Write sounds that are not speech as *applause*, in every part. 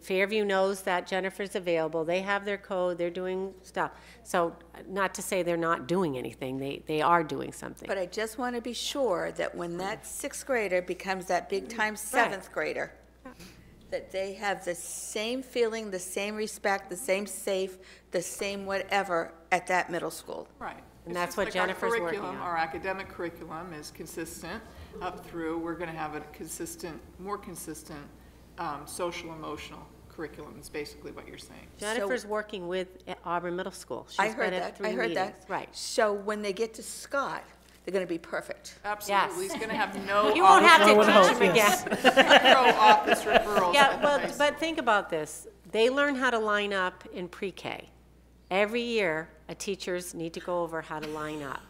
Fairview knows that Jennifer's available, they have their code, they're doing stuff. So not to say they're not doing anything, they, they are doing something. But I just want to be sure that when that sixth grader becomes that big-time seventh grader, that they have the same feeling, the same respect, the same safe, the same whatever at that middle school. Right. And It's that's just what like our Jennifer's working curriculum, on. Our academic curriculum is consistent up through, we're going to have a consistent, more consistent um, social emotional curriculum is basically what you're saying. Jennifer's working with Auburn Middle School. She's I been heard at that, I three heard that. meetings. Right. So when they get to Scott, they're going to be perfect. Absolutely, he's going to have *laughs* no. You won't have office- to teach them again. *laughs* No office referrals at Yeah, *laughs* the well, high school. but think about this. They learn how to line up in pre-K. Every year, a teachers need to go over how to line up.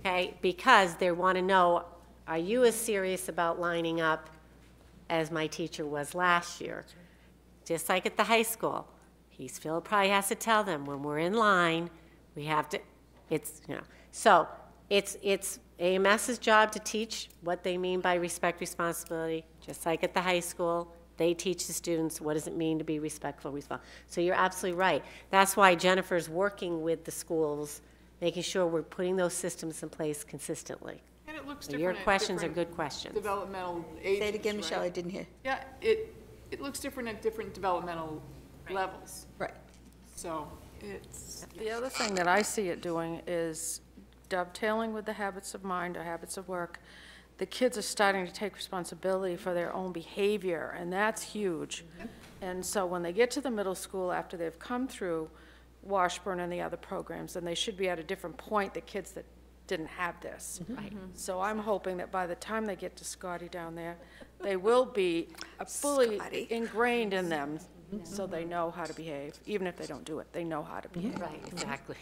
Okay, because they want to know, are you as serious about lining up as my teacher was last year? Just like at the high school, he's, Phil probably has to tell them, when we're in line, we have to, it's, you know. So, it's, it's AMS's job to teach what they mean by respect responsibility, just like at the high school, they teach the students, what does it mean to be respectful, respon So you're absolutely right. That's why Jennifer's working with the schools, making sure we're putting those systems in place consistently. And it looks So your different at questions are different good questions. Developmental ages, Say it again, right? Michelle, I didn't hear. Yeah, it, it looks different at different developmental levels, Right. so it's, The other thing that I see it doing is dovetailing with the habits of mind or habits of work. The kids are starting to take responsibility for their own behavior, and that's huge. And so when they get to the middle school, after they've come through Washburn and the other programs, then they should be at a different point, the kids that didn't have this. So I'm hoping that by the time they get to Scotty down there, they will be a fully Scotty. ingrained in them, so they know how to behave. Even if they don't do it, they know how to behave. Right, exactly.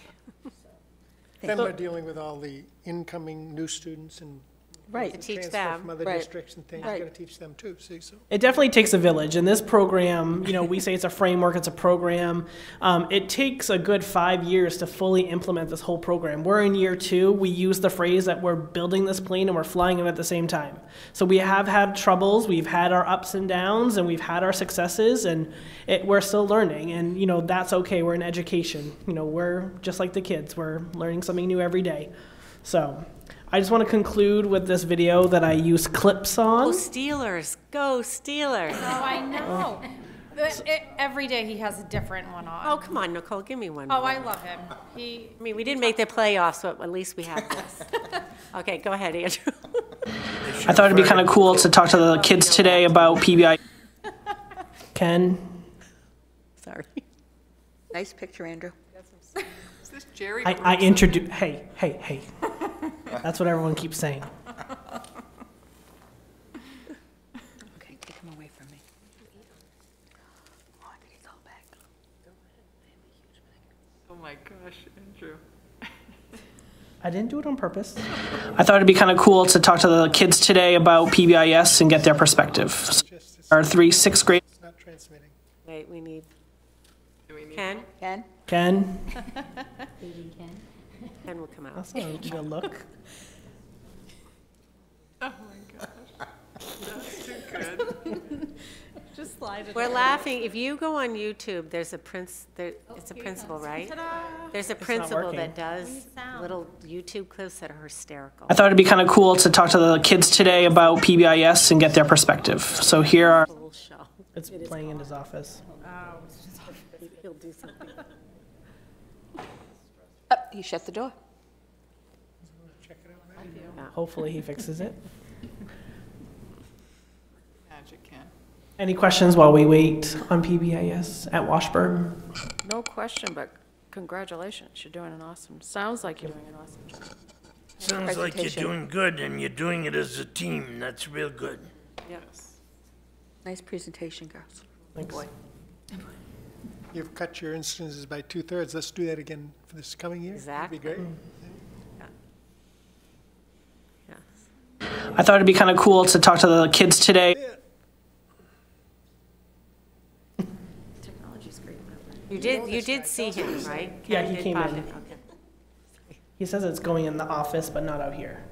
Then we're dealing with all the incoming new students and To Right. teach transfer from them, other Right. districts and things. You've got to teach them too, see, so. It definitely takes a village. And this program, you know, we say it's a framework, it's a program. Um, it takes a good five years to fully implement this whole program. We're in year two. We use the phrase that we're building this plane and we're flying it at the same time. So we have had troubles, we've had our ups and downs, and we've had our successes, and it, we're still learning. And, you know, that's okay. We're in education. You know, we're just like the kids, we're learning something new every day. So. I just want to conclude with this video that I use clips on. go Steelers, go Steelers. Oh, I know. The- e- Every day he has a different one on. Oh, come on, Nicole, give me one. Oh, more. I love him. He, I mean, we didn't make the playoffs, so at least we have this. *laughs* Okay, go ahead, Andrew. *laughs* I thought it'd be kind of cool to talk to the kids today about PBI. *laughs* Ken, Sorry. Nice picture, Andrew. is this Jerry? I, I introduce. Hey, hey, hey. That's what everyone keeps saying. Okay, take him away from me. Oh, did he go back? Oh my gosh, Andrew. I didn't do it on purpose. I thought it'd be kind of cool to talk to the kids today about PBIS and get their perspective. Just, it's Our three sixth grade. not transmitting. Wait, we need Do we need? Ken. Ken? Ken, Ken will come out. that's not a good look. Oh my gosh. That's too good. just slide it. We're laughing. If you go on YouTube, there's a prince, there, Oh, it's a principal, right? There's a principal working. that does little YouTube clips that are hysterical. I thought it'd be kind of cool to talk to the kids today about PBIS and get their perspective. So here are. The whole show. It's playing in his office. He'll do something. Oh, you shut the door. Check it out later. Hopefully he fixes it. Magic, Ken. Any questions while we wait on PBIS at Washburn? No question, but congratulations, you're doing an awesome, sounds like you're doing an awesome job. Sounds like you're presentation. doing good and you're doing it as a team. That's real good. Nice presentation, girls. You've cut your instances by two-thirds. Let's do that again for this coming year. Exactly. That'd be great. Yes. I thought it'd be kind of cool to talk to the kids today. You did, you did see him, right? Yeah, Ken he did came pop in. Okay. He says it's going in the office, but not out here. Oh.